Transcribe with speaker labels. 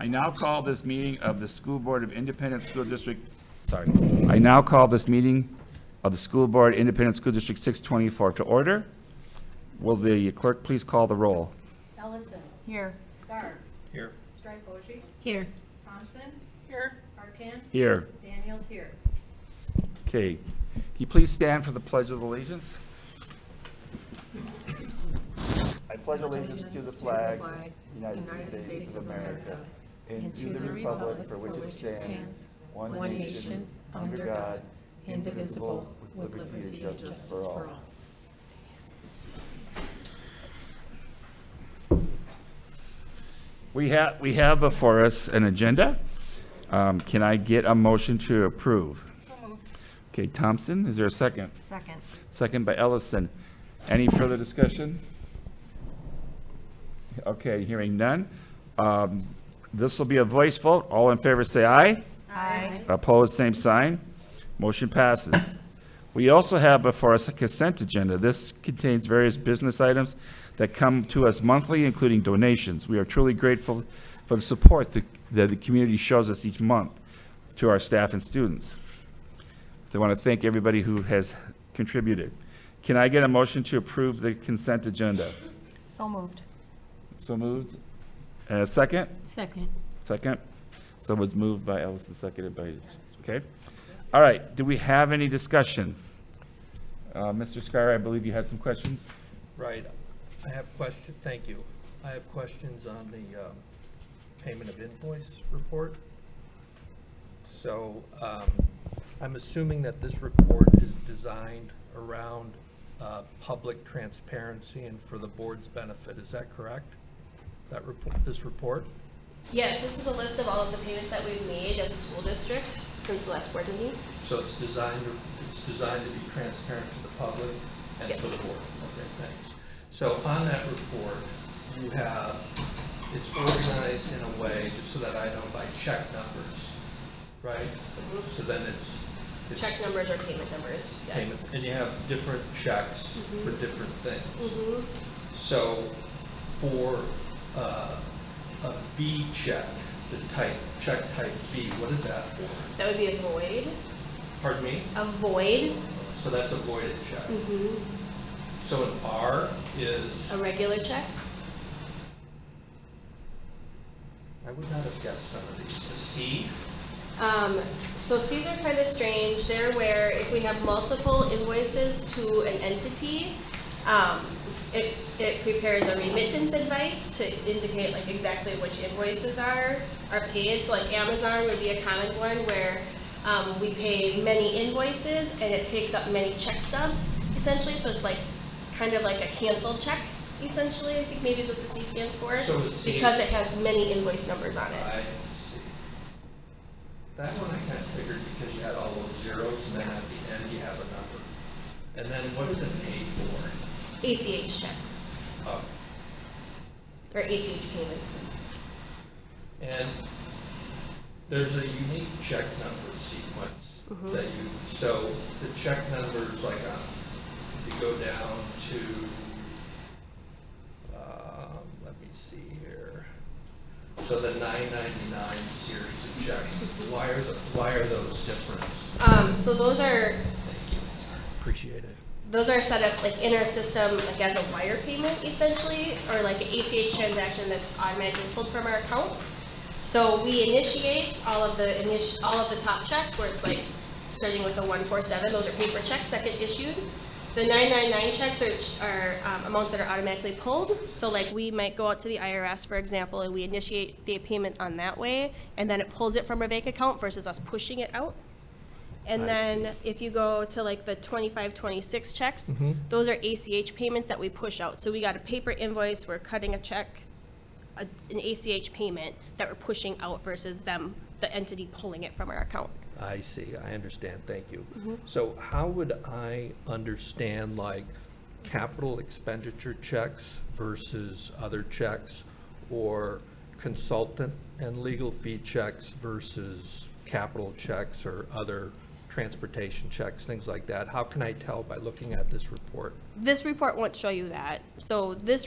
Speaker 1: I now call this meeting of the School Board of Independent School District, sorry. I now call this meeting of the School Board Independent School District 624 to order. Will the clerk please call the roll?
Speaker 2: Ellison,
Speaker 3: Here.
Speaker 2: Scarf,
Speaker 4: Here.
Speaker 2: Stripe
Speaker 3: Here.
Speaker 2: Thompson. Here. Arcan,
Speaker 1: Here.
Speaker 2: Daniels here.
Speaker 1: Okay. Can you please stand for the Pledge of Allegiance? I pledge allegiance to the flag, United States of America, and to the republic for which it stands, one nation, under God, indivisible, with liberty and justice for all. We have, we have before us an agenda. Um, Can I get a motion to approve? Okay, Thompson, is there a second?
Speaker 3: Second.
Speaker 1: Second by Ellison. Any further discussion? Okay, hearing none. Um, This will be a voice vote. All in favor, say aye.
Speaker 3: Aye.
Speaker 1: Opposed, same sign. Motion passes. We also have before us a consent agenda. This contains various business items that come to us monthly, including donations. We are truly grateful for the support that that the community shows us each month to our staff and students. So I want to thank everybody who has contributed. Can I get a motion to approve the consent agenda?
Speaker 3: So moved.
Speaker 1: So moved. Uh, second?
Speaker 5: Second.
Speaker 1: Second. So it was moved by Ellison, seconded by, okay? All right, do we have any discussion? Uh, Mr. Scar, I believe you had some questions?
Speaker 4: Right. I have question, thank you. I have questions on the um, payment of invoice report. So um, I'm assuming that this report is designed around uh, public transparency and for the board's benefit. Is that correct? That report, this report?
Speaker 6: Yes, this is a list of all of the payments that we've made as a school district since the last board meeting.
Speaker 4: So it's designed, it's designed to be transparent to the public and to
Speaker 6: Yes.
Speaker 4: the board. Okay, thanks. So on that report, you have, it's organized in a way, just so that I know, by check numbers, right? So then it's. it's
Speaker 6: Mm-hmm. Check numbers or payment numbers, yes. Mm-hmm.
Speaker 4: payment, And you have different checks for different things. So for uh, a V check, the type, check type V, what is that for?
Speaker 6: That would be a void,
Speaker 4: Pardon me?
Speaker 6: a void,
Speaker 4: So that's a voided check. So an R is,
Speaker 6: a regular check.
Speaker 4: I would not have guessed some of these. A C?
Speaker 6: Um, so Cs are kind of strange. They're where if we have multiple invoices to an entity, um, it, it prepares a remittance advice to indicate like exactly which invoices are, are paid. So like Amazon would be a common one where, um, we pay many invoices and it takes up many check stubs essentially. So it's like, kind of like a canceled check essentially, I think maybe is what the C stands for.
Speaker 4: So a C-
Speaker 6: Because it has many invoice numbers on it.
Speaker 4: I see. That one I kind of figured because you had all those zeros and then at the end you have a number. And then what is an A
Speaker 6: ACH checks.
Speaker 4: for? Oh,
Speaker 6: or ACH payments.
Speaker 4: And there's a unique check number sequence
Speaker 6: Mhm.
Speaker 4: that you, so the check numbers, like, um, if you go down to, um, let me see here. So the nine ninety-nine series of checks, why are the, why are those different?
Speaker 6: Um, so those are
Speaker 4: Thank you, appreciate it.
Speaker 6: those are set up like in our system like as a wire payment essentially, or like an ACH transaction that's automatically pulled from our accounts. So we initiate all of the init- all of the top checks where it's like starting with a one four seven. Those are paper checks that get issued. The nine nine nine checks are, ch- are um, amounts that are automatically pulled. So like we might go out to the IRS, for example, and we initiate the payment on that way, and then it pulls it from our bank account versus us pushing it out.
Speaker 4: I
Speaker 6: And then if you go to like the 25, 26 checks, those are ACH payments that we push out. So we got a paper invoice, we're cutting a check, a- an ACH payment that we're pushing out versus them, the entity pulling it from our account.
Speaker 4: I see, I understand, thank you. So how would I understand, like, capital expenditure checks versus other checks, or consultant and legal fee checks versus capital checks or other transportation checks, things like that? How can I tell by looking at this report?
Speaker 6: This report won't show you that. So this